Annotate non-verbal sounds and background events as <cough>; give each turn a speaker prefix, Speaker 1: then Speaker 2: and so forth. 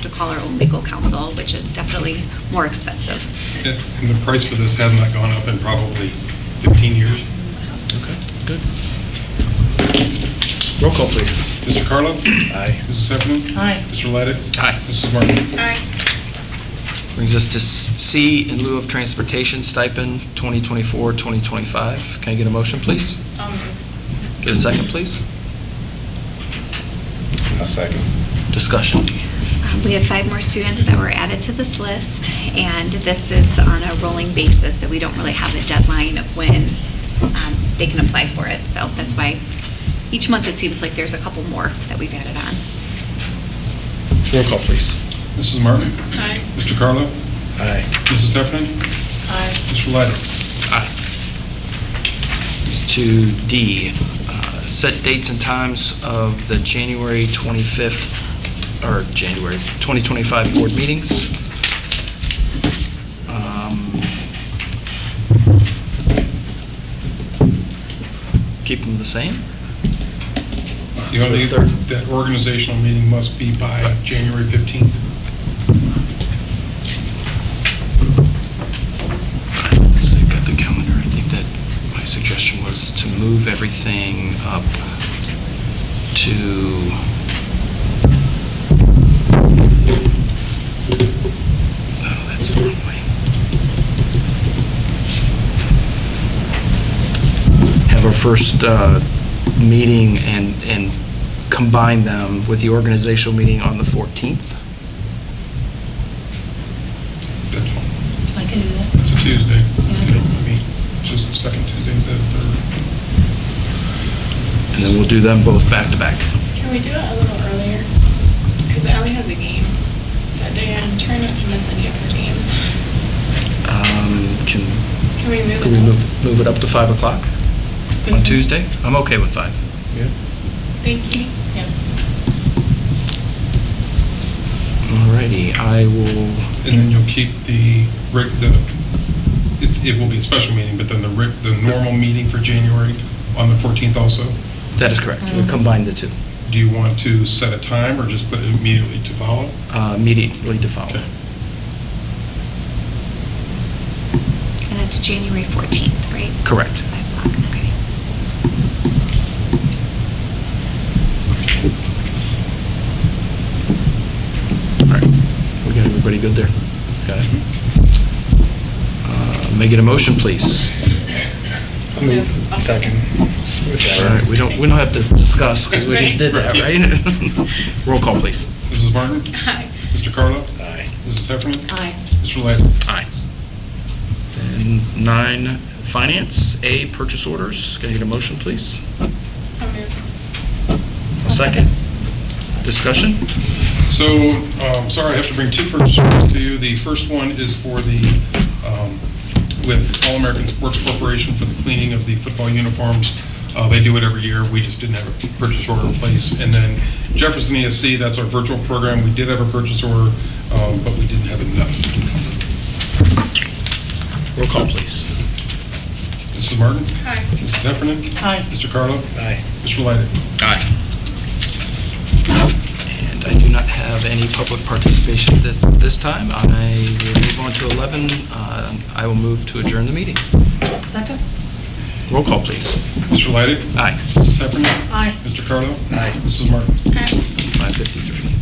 Speaker 1: to call our own legal counsel, which is definitely more expensive.
Speaker 2: And and the price for this has not gone up in probably 15 years.
Speaker 3: Okay, good. Roll call, please.
Speaker 2: Mr. Carlo?
Speaker 3: <clears throat> Aye.
Speaker 2: Mrs. Effernan?
Speaker 4: Aye.
Speaker 2: Mr. Laydick?
Speaker 3: Aye.
Speaker 2: Mrs. Martin?
Speaker 3: Brings us to C, in lieu of transportation stipend, 2024-2025. Can I get a motion, please? Get a second, please?
Speaker 2: A second.
Speaker 3: Discussion.
Speaker 1: Um, We have five more students that were added to this list, and this is on a rolling basis, so we don't really have a deadline of when um, they can apply for it. So that's why each month it seems like there's a couple more that we've added on.
Speaker 3: Roll call, please.
Speaker 2: Mrs. Martin?
Speaker 4: Aye.
Speaker 2: Mr. Carlo?
Speaker 3: Aye.
Speaker 2: Mrs. Effernan?
Speaker 4: Aye.
Speaker 2: Mr. Laydick?
Speaker 3: Aye. Brings To D, uh, set dates and times of the January 25th, or January 2025 board meetings. Um, Keep them the same?
Speaker 2: The only,
Speaker 3: The third.
Speaker 2: that organizational meeting must be by January 15th.
Speaker 3: Because I've got the calendar, I think that my suggestion was to move everything up to, oh, that's the wrong way. Have our first uh, meeting and, and combine them with the organizational meeting on the 14th.
Speaker 2: That's fine.
Speaker 4: I can do that.
Speaker 2: It's a Tuesday.
Speaker 4: Yeah.
Speaker 2: You don't meet Just the second Tuesday, instead of the
Speaker 3: And then we'll do them both back to back.
Speaker 5: Can we do it a little earlier? Because Ally has a game that day. I'm trying not to miss any of her games.
Speaker 3: Um, Can
Speaker 5: Can we move it?
Speaker 3: Can we
Speaker 5: up? Mm-hmm.
Speaker 3: move, move it up to 5 o'clock on
Speaker 4: Mhm.
Speaker 3: Tuesday? I'm okay with 5.
Speaker 5: Thank you.
Speaker 4: Yeah.
Speaker 3: Alrighty, I will,
Speaker 2: 3rd. And then you'll keep the, reg- the, it's- it will be a special meeting, but then the, reg- the normal meeting for January on the 14th also?
Speaker 3: that is correct,
Speaker 5: Mm-hmm.
Speaker 3: we'll
Speaker 4: Mhm.
Speaker 3: combine the two
Speaker 2: Do you want to set a time or just put it immediately to follow?
Speaker 3: uh, immediately to follow.
Speaker 2: Okay.
Speaker 1: And it's January 14th, right?
Speaker 3: Correct.
Speaker 1: Five o'clock, okay.
Speaker 3: Alright, we got everybody good there? Got it? Uh, Make it a motion, please.
Speaker 4: Move. Second.
Speaker 3: Alright, we don't, we don't have to discuss, because we just did that, right? <laughs> Roll call, please.
Speaker 2: Mrs. Martin?
Speaker 5: Hi.
Speaker 2: Mr. Carlo?
Speaker 3: Aye.
Speaker 2: Mrs. Heffernan?
Speaker 4: Aye.
Speaker 2: Mr. Laydick?
Speaker 3: Aye. And nine, finance, A, purchase orders. Can I get a motion, please?
Speaker 5: I'll move.
Speaker 3: Second. Discussion?
Speaker 2: So, um, sorry, I have to bring two purchase orders to you. The first one is for the, um, with All-American Sports Corporation for the cleaning of the football uniforms. Uh, They do it every year, we just didn't have a purchase order in place. And then Jefferson ESC, that's our virtual program, we did have a purchase order, um, but we didn't have enough.
Speaker 3: Roll call, please.
Speaker 2: Mrs. Martin?
Speaker 5: Hi.
Speaker 2: Mrs. Heffernan?
Speaker 4: Aye.
Speaker 2: Mr. Carlo?
Speaker 3: Aye.
Speaker 2: Mr. Laydick?
Speaker 3: Aye. And I do not have any public participation at this- this time. I will move on to 11. Uh, I will move to adjourn the meeting.
Speaker 4: Second?
Speaker 3: Roll call, please.
Speaker 2: Mr. Laydick?
Speaker 3: Aye.
Speaker 2: Mrs. Heffernan?
Speaker 4: Aye.
Speaker 2: Mr. Carlo?
Speaker 3: Aye.
Speaker 2: Mrs. Martin?
Speaker 5: Hi.
Speaker 3: 5:53.